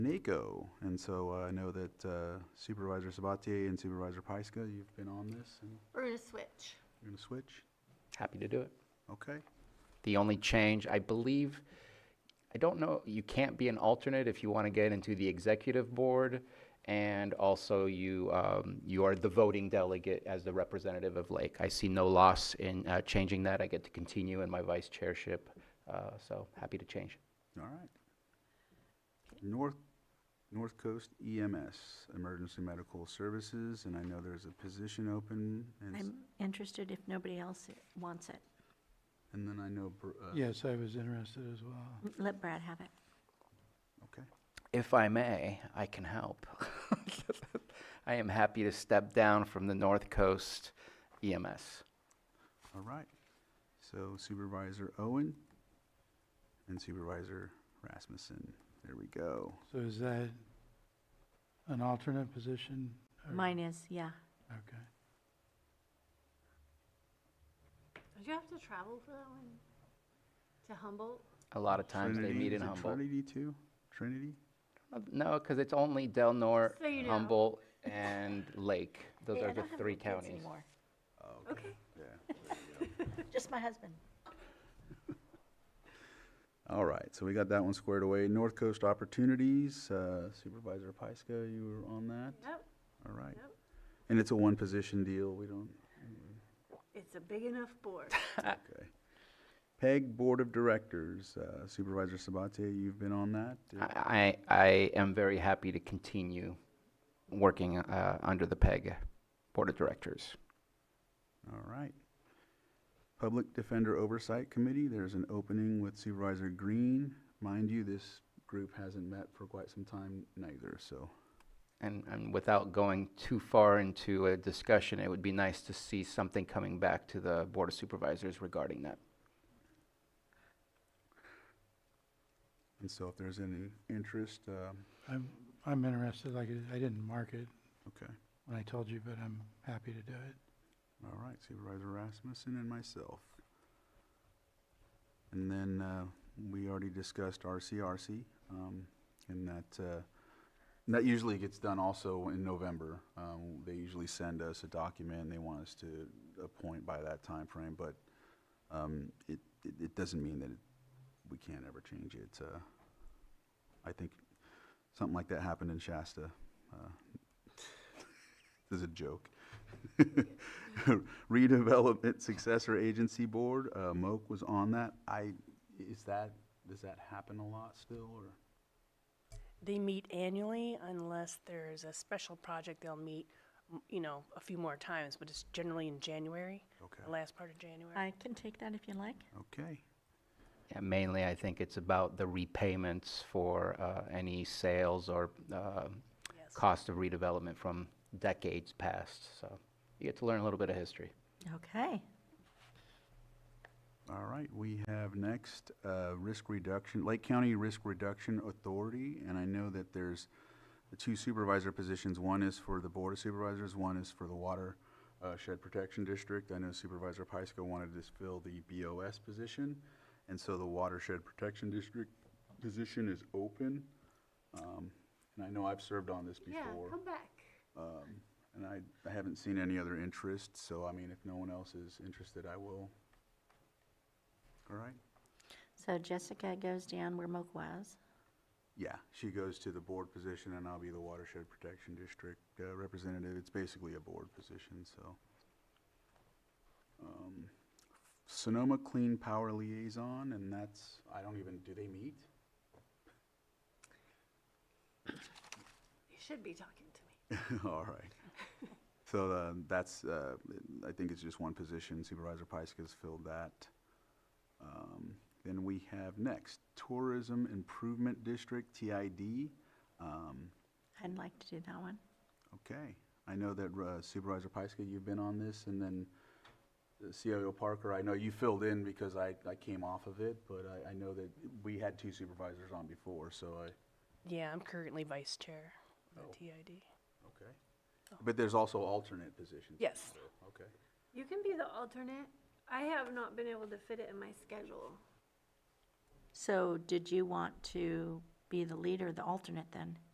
NACO. And so uh, I know that uh, Supervisor Sabatier and Supervisor Pyska, you've been on this and We're gonna switch. you're going to switch? Happy to do it. Okay. The only change, I believe, I don't know, you can't be an alternate if you want to get into the executive board. And also you, um, you are the voting delegate as the representative of Lake. I see no loss in, uh, changing that. I get to continue in my vice chairship. Uh, so happy to change. All right. North, North Coast EMS, Emergency Medical Services, and I know there's a position open. And, s- I'm interested if nobody else i- wants it. and then I know, Br- uh, Yes, I was interested as well. M- Let Brad have it. okay. If I may, I can help. I am happy to step down from the North Coast E EMS. All right. So Supervisor Owen and Supervisor Rasmussen. There we go. So is that an alternate position? or- Mine is, yeah. Okay. Did you have to travel for that one? To Humboldt? A lot of times they Trinity- meet in is it Humboldt. Trinity too? Trinity? Uh, No, because it's only Del Norte, So you know. Humboldt, and Lake. Those Hey, I are the don't have three any kids counties. anymore. Okay. Oh, Yeah. Just my husband. All right, so we got that one squared away. North Coast Opportunities, uh, Supervisor Pyska, you were on that? Yep. All right. Yep. And it's a one-position deal, we don't, It's a big enough board. okay. PEG Board of Directors, uh, Supervisor Sabatier, you've been on that? Ah. I, I I am very happy to continue working uh, under the PEG Board of Directors. All right. Public Defender Oversight Committee, there's an opening with Supervisor Green. Mind you, this group hasn't met for quite some time neither, so. And, and without going too far into a discussion, it would be nice to see something coming back to the Board of Supervisors regarding that. And so if there's any interest, um, I'm, I'm interested, like, I didn't mark it okay. when I told you, but I'm happy to do it. All right, Supervisor Rasmussen and myself. And then uh, we already discussed RCRC, um, and that, uh, and that usually gets done also in November. Um, They usually send us a document, and they want us to appoint by that time frame. but um, it, it it doesn't mean that it- we can't ever change it. Uh, I think something like that happened in Shasta. uh, This is a joke. Redevelopment Successor Agency Board, uh, Moak was on that. I, is that, does that happen a lot still, or? They meet annually unless there's a special project, they'll meet, m- you know, a few more times, but it's generally in January, Okay. the last part of January. I can take that if you like. Okay, Yeah, Mainly, I think it's about the repayments for uh, any sales or uh, Yes. cost of redevelopment from decades past. So you get to learn a little bit of history. Okay. all right. We have next, uh, Risk Reduction, Lake County Risk Reduction Authority, and I know that there's the two supervisor positions. One is for the Board of Supervisors, one is for the Water uh, Shed Protection District. I know Supervisor Pyska wanted to fill the BOS position, and so the Watershed Protection District position is open. Um, And I know I've served on this Yeah, before. come back. Um, And I, I haven't seen any other interest, so I mean, if no one else is interested, I will. All right? So Jessica goes down where Moak was. Yeah, she goes to the board position and I'll be the Watershed Protection District uh, Representative. It's basically a board position, so. Um, Sonoma Clean Power Liaison, and that's, I don't even, do they meet? You should be talking to me. All right. So uh, that's, uh, I think it's just one position. Supervisor Pyska's filled that. Um, Then we have next, Tourism Improvement District, TID. Um, I'd like to do that one. Okay. I know that uh, Supervisor Pyska, you've been on this, and then uh, CIO Parker, I know you filled in because I, I came off of it, but I, I know that we had two supervisors on before, so I, Yeah, I'm currently vice chair of Oh. the TID. okay. But there's also alternate positions. Yes. so, Okay. You can be the alternate. I have not been able to fit it in my schedule. So did you want to be the leader, the alternate then.